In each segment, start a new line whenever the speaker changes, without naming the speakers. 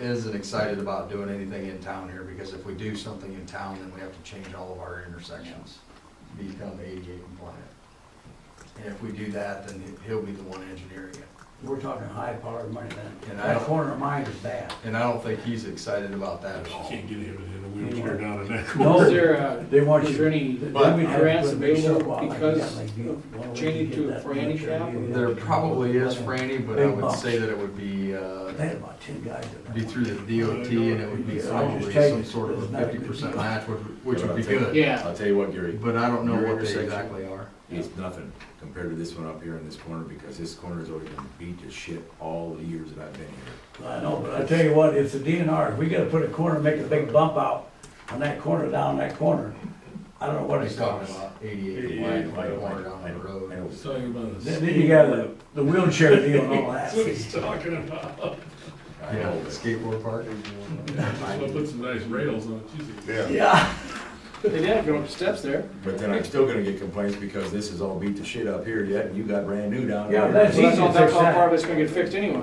isn't excited about doing anything in town here, because if we do something in town, then we have to change all of our intersections, to become ADA compliant. And if we do that, then he- he'll be the one engineering it.
We're talking high powered money then.
And I
That
don't-
corner of mine is bad.
And I don't think he's excited about that at all.
Can't get him in a wheelchair down in that
No.
corner.
Is there, uh,
They want you.
is there any
then
But-
we'd have to
grants
put a big
available
sidewalk like
because
that, like you-
of
why would
changing
you
to
get that
for
much?
handicap?
You'd have
There
to do
probably is,
that.
Franny, but I
Big
would
bumps.
say that it would be,
They
uh,
had about ten guys. in there.
be through the DOT, and it would be
Yeah, I just
probably
tell you,
some sort of
there's
a
not a
fifty percent
good-
match, which, which would be
Yeah.
good.
yeah,
I'll tell you what, Gary,
But I don't know
Your
what they
intersection.
exactly are.
it's nothing compared to this one up here in this corner, because this corner's already been beat to shit all the years that I've been here.
I know, but I tell you what, if the DNR, if we gotta put a corner, make a big bump out on that corner, down that corner, I don't know what
What he's
it's
talking
called.
about,
Yeah,
eighty-eight,
I
wide,
know,
corner
I
down the
know, I
road.
know.
He's talking about
Then then you got the, the wheelchair deal and all that.
That's what he's talking about.
I
Yeah,
know, but-
skateboard park.
Just wanna put some nice rails on it, Jesus.
Yeah,
they did go up the steps there.
But then I'm still gonna get complaints because this is all beat to shit up here yet, and you got brand new down
Yeah,
there.
So
that's- It's
that's
easy
all,
to
that's
fix
all
that.
part of it's gonna get fixed anyway.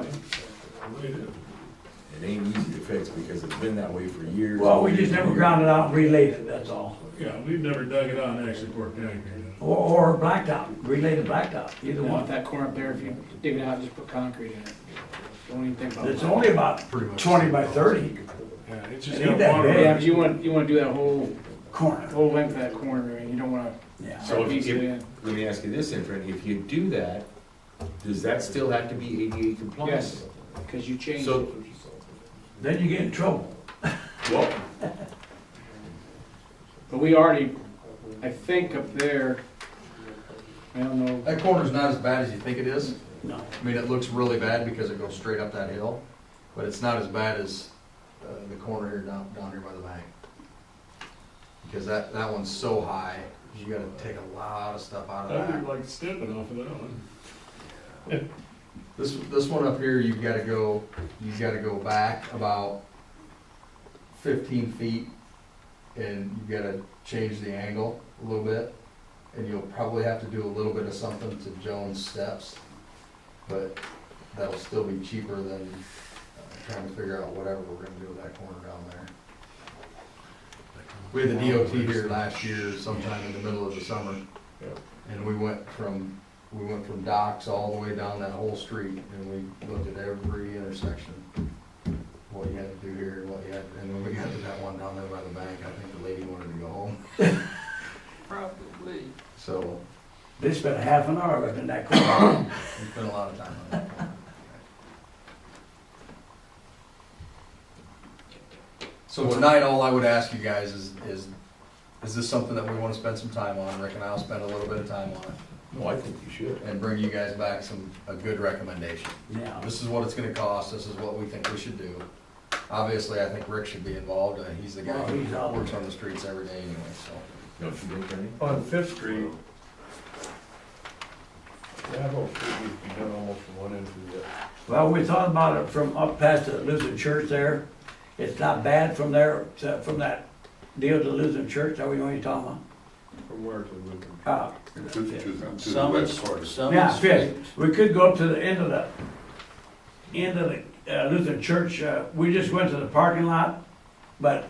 It ain't easy to fix because it's been that way for years.
well, we just never ground it out and relayed it, that's all.
Yeah, we've never dug it out and actually poured concrete.
Or, or blacktop, relayed to blacktop, either
You want
one.
that corner up there, if you dig it out, just put concrete in it. Don't even think about it.
It's only about
Pretty much.
twenty by thirty
Yeah, it's just
It ain't
got
that
water.
big.
Yeah,
on
but
it.
you want, you wanna do that whole,
corner,
whole length of that corner, and you don't wanna
yeah.
So if-
piece it
if-
in.
Let me ask you this, then, Franny, if you do that, does that still have to be ADA compliant?
Yes, cause you changed
So-
it.
Then you get in trouble.
Well,
But we already, I think up there, I don't know,
That corner's not as bad as you think it is.
No.
I mean, it looks really bad because it goes straight up that hill, but it's not as bad as uh, the corner here down, down here by the bank. Because that, that one's so high, you gotta take a lot of stuff out of
I'd
that.
be like stepping off of that one.
This, this one up here, you've gotta go, you've gotta go back about fifteen feet, and you've gotta change the angle a little bit, and you'll probably have to do a little bit of something to Jones' steps, but that'll still be cheaper than uh, trying to figure out whatever we're gonna do with that corner down there. We had the DOT here last year sometime in the middle of the summer,
Yep.
and we went from, we went from docks all the way down that whole street, and we looked at every intersection what you had to do here, what you had, and when we got to that one down there by the bank, I think the lady wanted to go home.
probably.
So,
They spent half an hour up in that corner.
we spent a lot of time on that. So tonight, all I would ask you guys is, is, is this something that we wanna spend some time on? Rick and I'll spend a little bit of time on it
no, I think you should.
and bring you guys back some, a good recommendation.
Yeah.
This is what it's gonna cost, this is what we think we should do. Obviously, I think Rick should be involved, uh, he's the guy
Well, he's out
who
there.
works on the streets every day anyway, so.
Don't you think, Franny?
On Fifth Street, that whole street needs to be done almost from one end to the other.
Well, we thought about it from up past the Lutheran church there. It's not bad from there, to- from that deal to Lutheran church, are we going to talk
From where to Lincoln?
about?
To, to, to the
Summit,
west part.
Yeah,
Summit
fifth.
Street.
We could go up to the end of the, end of the uh, Lutheran church. Uh, We just went to the parking lot, but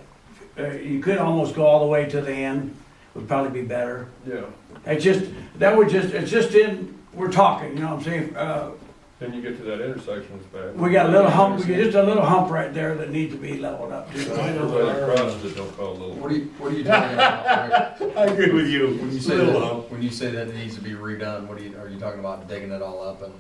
uh, you could almost go all the way to the end, would probably be better.
Yeah,
It just, that would just, it's just in, we're talking, you know what I'm saying? Uh,
then you get to that intersection, it's bad.
We got a little hump, we got just a little hump right there that needs to be leveled up too.
I know
Everybody
our, uh,
across it, don't call it little.
What are you, what are you talking about, Rick?
I agree with you.
When you say that, when you say that it needs to be redone, what are you, are you talking about digging it all up and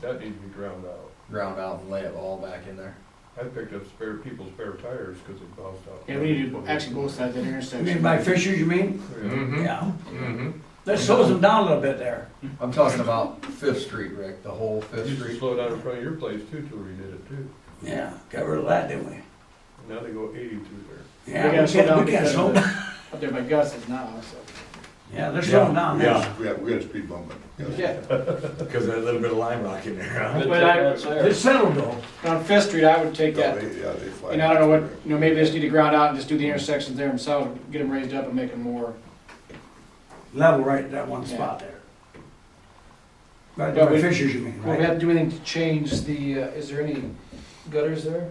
That needs to be ground out.
ground out and lay it all back in there?
I picked up spare, people's spare tires because it bounced out.
Yeah, we need to, actually both sides of that
You
intersection.
mean by Fishers, you mean?
Yeah.
Yeah.
Mm-hmm.
That slows them down a little bit there.
I'm talking about Fifth Street, Rick, the whole
You
Fifth
Used to
Street.
slow down in front of your place too till we did it too.
Yeah, got rid of that, didn't we?
Now they go eighty through there.
Yeah,
gotta
we
slow down
got, we got
because of
slow,
the- Up there by Gus is now, so,
yeah, they're slowing down now.
Yeah, we had, we had a speed bump. but, yeah.
yeah.
Because of that little bit of lime rock in there, huh?
But I,
It's settled though.
on Fifth Street, I would take
Yeah,
that,
they- yeah, they fly.
and I don't know what, you know, maybe they just need to ground out and just do the intersections there themselves, get them raised up and make them more.
Level right at that one spot there. Right
Yeah,
by
we-
Fishers, you mean,
Well, we
right?
have to do anything to change the, uh, is there any gutters there?